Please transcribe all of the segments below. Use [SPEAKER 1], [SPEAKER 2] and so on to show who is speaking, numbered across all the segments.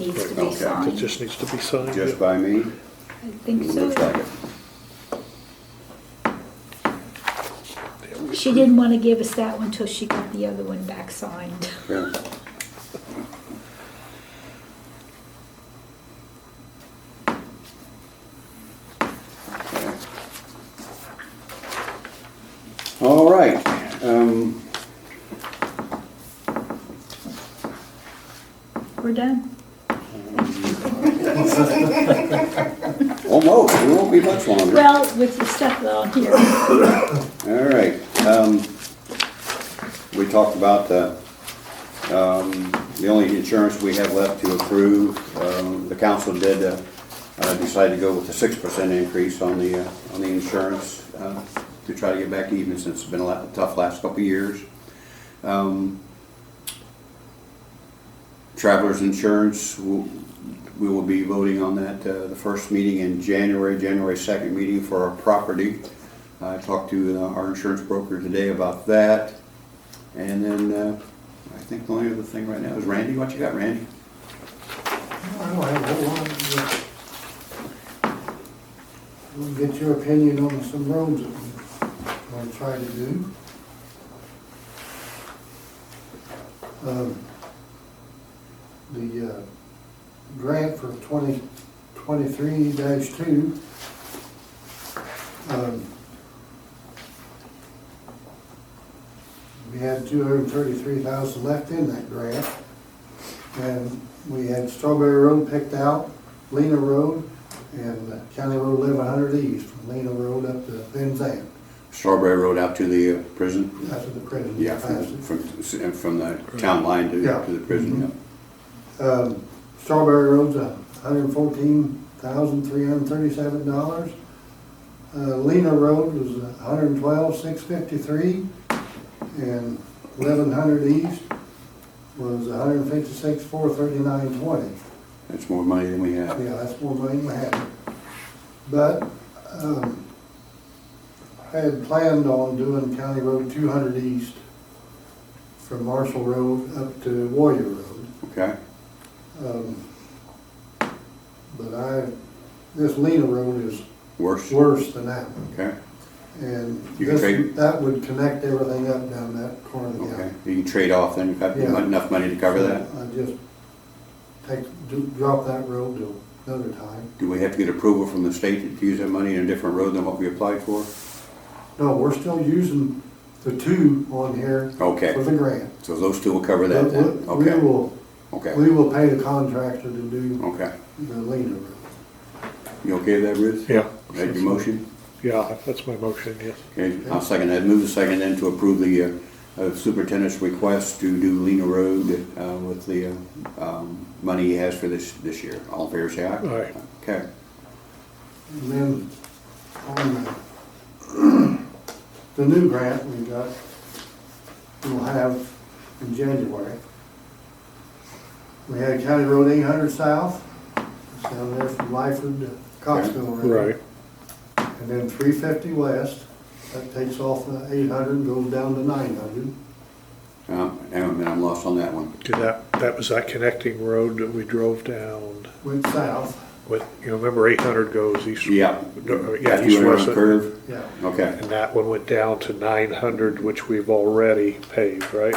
[SPEAKER 1] needs to be
[SPEAKER 2] Okay.
[SPEAKER 1] signed.
[SPEAKER 3] It just needs to be signed.
[SPEAKER 2] Just
[SPEAKER 3] yeah.
[SPEAKER 2] by
[SPEAKER 1] I
[SPEAKER 2] me?
[SPEAKER 1] think
[SPEAKER 2] Looks like
[SPEAKER 1] so.
[SPEAKER 2] it.
[SPEAKER 1] She didn't want to give us that one till she got the other one back signed.
[SPEAKER 2] Yeah. All right, um,
[SPEAKER 1] We're done.
[SPEAKER 2] almost, it won't be much longer.
[SPEAKER 1] Well, with the stuff on here.
[SPEAKER 2] All right, um, we talked about the, um, the only insurance we have left to approve. Um, the council did, uh, uh, decide to go with the six percent increase on the, uh, on the insurance, uh, to try to get back even since it's been a la- tough last couple of years. Um, Travelers insurance, we'll- we will be voting on that, uh, the first meeting in January, January second meeting for our property. I talked to uh, our insurance broker today about that. And then, uh, I think the only other thing right now is Randy, what you got, Randy?
[SPEAKER 4] I uh, don't have a whole lot. but We'll get your opinion on some roads that we want to try to do. Um, The uh, grant for twenty twenty-three two. um, We had two hundred and thirty-three thousand left in that grant. And we had Strawberry Road picked out, Lena Road, and County Road eleven hundred east, from Lena Road up to Benzan,
[SPEAKER 2] Strawberry Road out to the uh, prison?
[SPEAKER 4] out to the prison.
[SPEAKER 2] Yeah, from, from, from the town line to,
[SPEAKER 4] Yeah.
[SPEAKER 2] to the prison, yeah. Mm-hmm.
[SPEAKER 4] Um, Strawberry Road's a hundred and fourteen thousand, three hundred and thirty-seven dollars. Uh, Lena Road was a hundred and twelve, six fifty-three, and eleven hundred east was a hundred and fifty-six, four thirty-nine, twenty.
[SPEAKER 2] That's more money than we have.
[SPEAKER 4] Yeah, that's more money than I had. But, um, I had planned on doing County Road two hundred east from Marshall Road up to Warrior Road.
[SPEAKER 2] Okay,
[SPEAKER 4] Um, But I, this Lena Road is
[SPEAKER 2] worse,
[SPEAKER 4] worse than that one.
[SPEAKER 2] okay,
[SPEAKER 4] And
[SPEAKER 2] You can
[SPEAKER 4] this,
[SPEAKER 2] trade-
[SPEAKER 4] that would connect everything up down that corner of the
[SPEAKER 2] okay.
[SPEAKER 4] island.
[SPEAKER 2] You can trade off then, you've got
[SPEAKER 4] Yeah.
[SPEAKER 2] enough money to cover that?
[SPEAKER 4] I just take, do- drop that road to another time.
[SPEAKER 2] Do we have to get approval from the state to use that money in a different road than what we applied for?
[SPEAKER 4] No, we're still using the two on here for
[SPEAKER 2] Okay,
[SPEAKER 4] the grant.
[SPEAKER 2] so those two will cover that
[SPEAKER 4] But we
[SPEAKER 2] then?
[SPEAKER 4] we
[SPEAKER 2] Okay,
[SPEAKER 4] will,
[SPEAKER 2] okay,
[SPEAKER 4] we will pay the contractor to do
[SPEAKER 2] okay.
[SPEAKER 4] the lien over.
[SPEAKER 2] You okay with that, Ruth?
[SPEAKER 3] Yeah.
[SPEAKER 2] Is that your motion?
[SPEAKER 3] Yeah, that's my motion, yes.
[SPEAKER 2] Okay, I'll second that. Move the second then to approve the uh, uh, superintendent's request to do Lena Road uh, with the uh, um, money he has for this, this year. All in favor, say aye.
[SPEAKER 3] Aye.
[SPEAKER 2] Okay.
[SPEAKER 4] And then on the, the new grant we got, we'll have in January. We had County Road eight hundred south, it's down there from Lyford to Coxville. Road.
[SPEAKER 3] Right,
[SPEAKER 4] And then three fifty west, that takes off the eight hundred and goes down to nine hundred.
[SPEAKER 2] Uh, Hang on a minute, I'm lost on that one.
[SPEAKER 3] did that, that was that connecting road that we drove down
[SPEAKER 4] went south,
[SPEAKER 3] with, you remember eight hundred goes east.
[SPEAKER 2] Yeah.
[SPEAKER 3] No, uh, Yeah,
[SPEAKER 2] After
[SPEAKER 3] east
[SPEAKER 2] you went around
[SPEAKER 3] west.
[SPEAKER 2] the curve?
[SPEAKER 4] yeah.
[SPEAKER 2] Okay,
[SPEAKER 3] And that one went down to nine hundred, which we've already paved, right?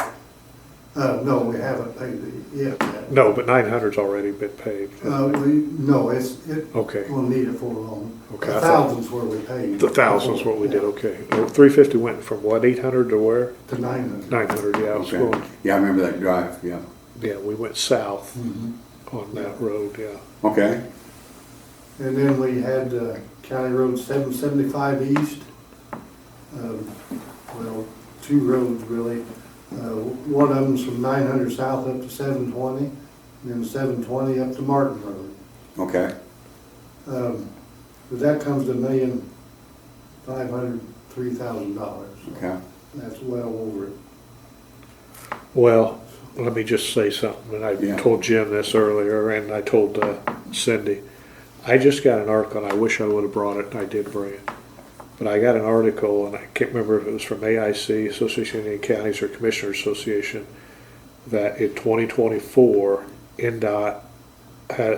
[SPEAKER 4] Uh, no, we haven't paid it yet.
[SPEAKER 3] No, but nine hundred's already been paved.
[SPEAKER 4] Uh, we, no, it's, it
[SPEAKER 3] Okay.
[SPEAKER 4] will need it for long.
[SPEAKER 3] Okay, I
[SPEAKER 4] The
[SPEAKER 3] thought-
[SPEAKER 4] thousands where we paid.
[SPEAKER 3] The thousands what we did, okay. Three fifty went from what, eight hundred to where?
[SPEAKER 4] To nine hundred.
[SPEAKER 3] Nine hundred, yeah, I was
[SPEAKER 2] okay.
[SPEAKER 3] going,
[SPEAKER 2] Yeah, I remember that drive, yeah.
[SPEAKER 3] yeah, we went south
[SPEAKER 4] Mm-hmm.
[SPEAKER 3] on that road, yeah.
[SPEAKER 2] Okay,
[SPEAKER 4] And then we had uh, County Road seven seventy-five east. Um, Well, two roads really. Uh, One of them's from nine hundred south up to seven twenty, and then seven twenty up to Martin Road.
[SPEAKER 2] okay.
[SPEAKER 4] Um, But that comes to a million, five hundred, three thousand dollars.
[SPEAKER 2] Okay.
[SPEAKER 4] That's well over it.
[SPEAKER 3] Well, let me just say something, and I
[SPEAKER 2] Yeah.
[SPEAKER 3] told Jim this earlier, and I told uh, Cindy. I just got an article, and I wish I would have brought it, and I did bring it. But I got an article, and I can't remember if it was from AIC, Association of Indian Counties, or Commissioners Association, that in 2024, NDOT had